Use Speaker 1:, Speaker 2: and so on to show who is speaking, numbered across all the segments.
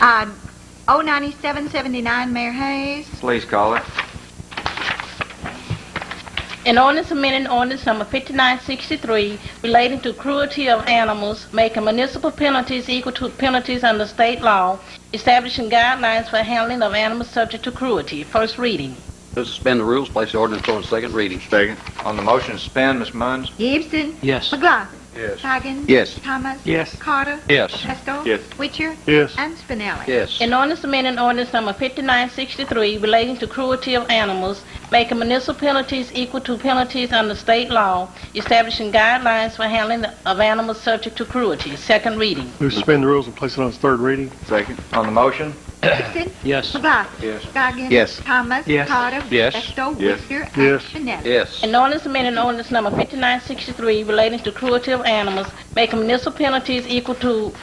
Speaker 1: Uh, 09779, Mayor Hayes.
Speaker 2: Please call it.
Speaker 3: An ordinance amending ordinance number 5963 relating to cruelty of animals, making municipal penalties equal to penalties under state law, establishing guidelines for handling of animals subject to cruelty. First reading.
Speaker 4: To suspend the rules, place the ordinance on its second reading.
Speaker 5: Second.
Speaker 2: On the motion to suspend, Ms. Munns?
Speaker 1: Gibson.
Speaker 4: Yes.
Speaker 1: McLaughlin.
Speaker 2: Yes.
Speaker 1: Hagen.
Speaker 4: Yes.
Speaker 1: Thomas.
Speaker 6: Yes.
Speaker 1: Carter.
Speaker 4: Yes.
Speaker 1: Pestle.
Speaker 5: Yes.
Speaker 1: Witcher.
Speaker 6: Yes.
Speaker 1: And Spinelli.
Speaker 4: Yes.
Speaker 3: An ordinance amending ordinance number 5963 relating to cruelty of animals, making municipal penalties equal to penalties under state law, establishing guidelines for handling of animals subject to cruelty. Second reading.
Speaker 6: Move to suspend the rules and place it on its third reading.
Speaker 5: Second.
Speaker 2: On the motion?
Speaker 1: Gibson.
Speaker 4: Yes.
Speaker 1: McLaughlin.
Speaker 2: Yes.
Speaker 1: Hagen.
Speaker 4: Yes.
Speaker 1: Thomas.
Speaker 6: Yes.
Speaker 1: Carter.
Speaker 4: Yes.
Speaker 1: Pestle.
Speaker 5: Yes.
Speaker 1: Witcher. and
Speaker 6: Yes.
Speaker 1: Spinelli.
Speaker 4: Yes.
Speaker 3: An ordinance amending ordinance number 5963 relating to cruelty of animals, making municipal penalties equal to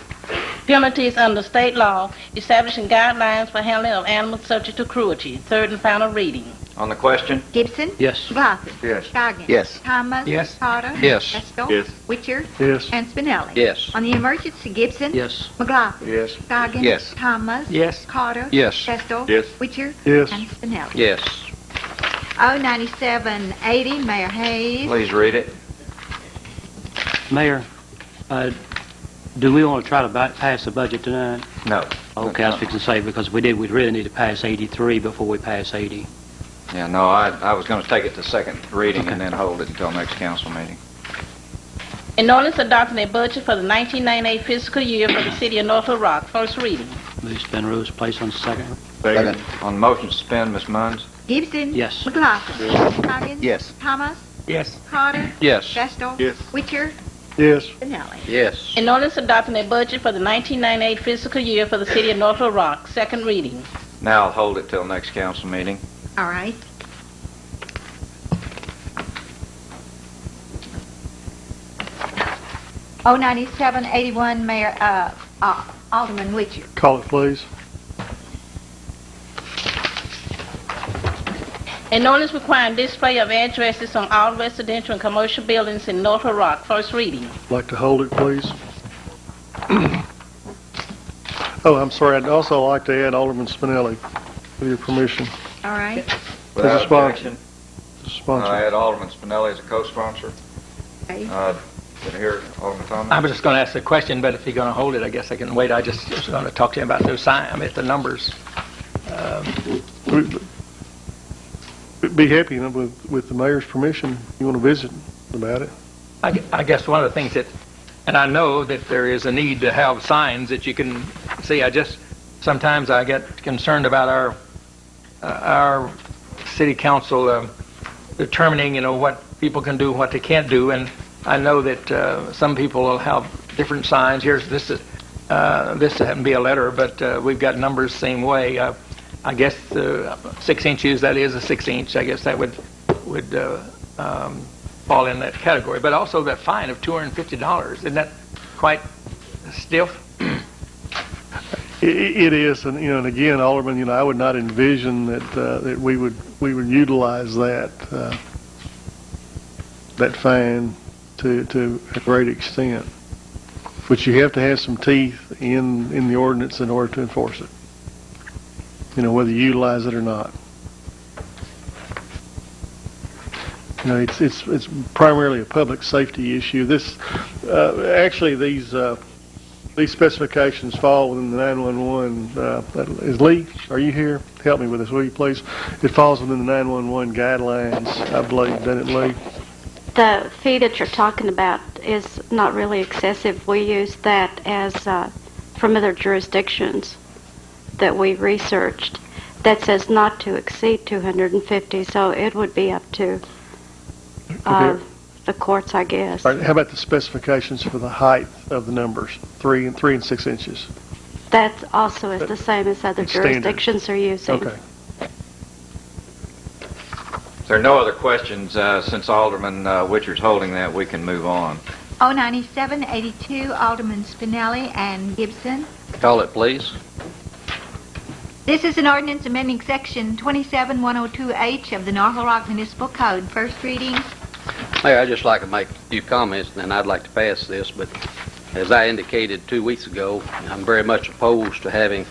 Speaker 3: penalties under state law, establishing guidelines for handling of animals subject to cruelty. Third and final reading.
Speaker 2: On the question?
Speaker 1: Gibson.
Speaker 4: Yes.
Speaker 1: McLaughlin.
Speaker 2: Yes.
Speaker 1: Hagen.
Speaker 4: Yes.
Speaker 1: Thomas.
Speaker 6: Yes.
Speaker 1: Carter.
Speaker 4: Yes.
Speaker 1: Pestle.
Speaker 5: Yes.
Speaker 1: Witcher.
Speaker 6: Yes.
Speaker 1: And Spinelli.
Speaker 4: Yes.
Speaker 1: On the emergency, Gibson.
Speaker 4: Yes.
Speaker 1: McLaughlin.
Speaker 2: Yes.
Speaker 1: Hagen.
Speaker 4: Yes.
Speaker 1: Thomas.
Speaker 6: Yes.
Speaker 1: Carter.
Speaker 4: Yes.
Speaker 1: Pestle.
Speaker 5: Yes.
Speaker 1: Witcher.
Speaker 6: Yes.
Speaker 1: And Spinelli.
Speaker 4: Yes.
Speaker 1: 09780, Mayor Hayes.
Speaker 2: Please read it.
Speaker 7: Mayor, uh, do we want to try to bu- pass the budget tonight?
Speaker 2: No.
Speaker 7: Okay, I was fixing to say, because if we did, we'd really need to pass 83 before we pass 80.
Speaker 2: Yeah, no, I, I was going to take it to second reading
Speaker 7: Okay.
Speaker 2: and then hold it until next council meeting.
Speaker 3: An ordinance adopting a budget for the 1998 fiscal year for the city of North Little Rock. First reading.
Speaker 7: Move suspend rules, place on second.
Speaker 5: Second.
Speaker 2: On the motion to suspend, Ms. Munns?
Speaker 1: Gibson.
Speaker 7: Yes.
Speaker 1: McLaughlin. Hagen.
Speaker 4: Yes.
Speaker 1: Thomas.
Speaker 6: Yes.
Speaker 1: Carter.
Speaker 4: Yes.
Speaker 1: Vestal.
Speaker 5: Yes.
Speaker 1: Witcher.
Speaker 6: Yes.
Speaker 1: Spinelli.
Speaker 4: Yes.
Speaker 3: An ordinance adopting a budget for the 1998 fiscal year for the city of North Little Rock. Second reading.
Speaker 2: Now I'll hold it till next council meeting.
Speaker 1: All right. Oh ninety-seven eighty-one, Mayor, uh, uh, Alderman Witcher.
Speaker 6: Call it, please.
Speaker 3: An ordinance requiring display of addresses on all residential and commercial buildings in North Little Rock. First reading.
Speaker 6: Like to hold it, please. Oh, I'm sorry. I'd also like to add Alderman Spinelli, with your permission,
Speaker 1: All right.
Speaker 2: Without
Speaker 6: a sponsor.
Speaker 2: objection,
Speaker 6: as
Speaker 2: I
Speaker 6: sponsor.
Speaker 2: add Alderman Spinelli as a co-sponsor.
Speaker 1: Okay.
Speaker 2: Uh, Did I hear Alderman Thomas?
Speaker 8: I was just going to ask the question, but if you're going to hold it, I guess I can wait. I just was going to talk to you about those sign, I mean, the numbers.
Speaker 6: We'd Be happy you know, with, with the mayor's permission. You want to visit about it?
Speaker 8: I gue- I guess one of the things that, and I know that there is a need to have signs that you can see. I just, sometimes I get concerned about our, uh, our city council um, determining, you know, what people can do, what they can't do. And I know that uh, some people will have different signs. Here's, this is, uh, this happened to be a letter, but uh, we've got numbers same way. Uh, I guess uh, six inches, that is a six inch. I guess that would, would uh, um, fall in that category, but also that fine of $250. Isn't that quite stiff?
Speaker 6: I- i- It is, and, you know, and again, Alderman, you know, I would not envision that, uh, that we would, we would utilize that, uh, that fine to, to a great extent. But you have to have some teeth in, in the ordinance in order to enforce it. You know, whether you utilize it or not. You know, it's, it's, it's primarily a public safety issue. This, uh, actually, these, uh, these specifications fall within the 911, uh, that- is Lee, are you here? Help me with this, will you please? It falls within the 911 guidelines, I believe, doesn't it, Lee?
Speaker 9: The fee that you're talking about is not really excessive. We use that as, uh, from other jurisdictions that we researched, that says not to exceed 250, so it would be up to uh,
Speaker 6: Okay.
Speaker 9: the courts, I guess.
Speaker 6: All right, how about the specifications for the height of the numbers, three and, three and six inches?
Speaker 9: That also is the same as other
Speaker 6: It's standard.
Speaker 9: jurisdictions are using.
Speaker 6: Okay,
Speaker 2: If there are no other questions, uh, since Alderman uh, Witcher's holding that, we can move on.
Speaker 1: Oh ninety-seven eighty-two, Alderman Spinelli and Gibson.
Speaker 4: Call it, please.
Speaker 1: This is an ordinance amending section 27102H of the North Little Rock Municipal Code. First reading.
Speaker 4: Mayor, I'd just like to make a few comments, and then I'd like to pass this, but as I indicated two weeks ago, I'm very much opposed to having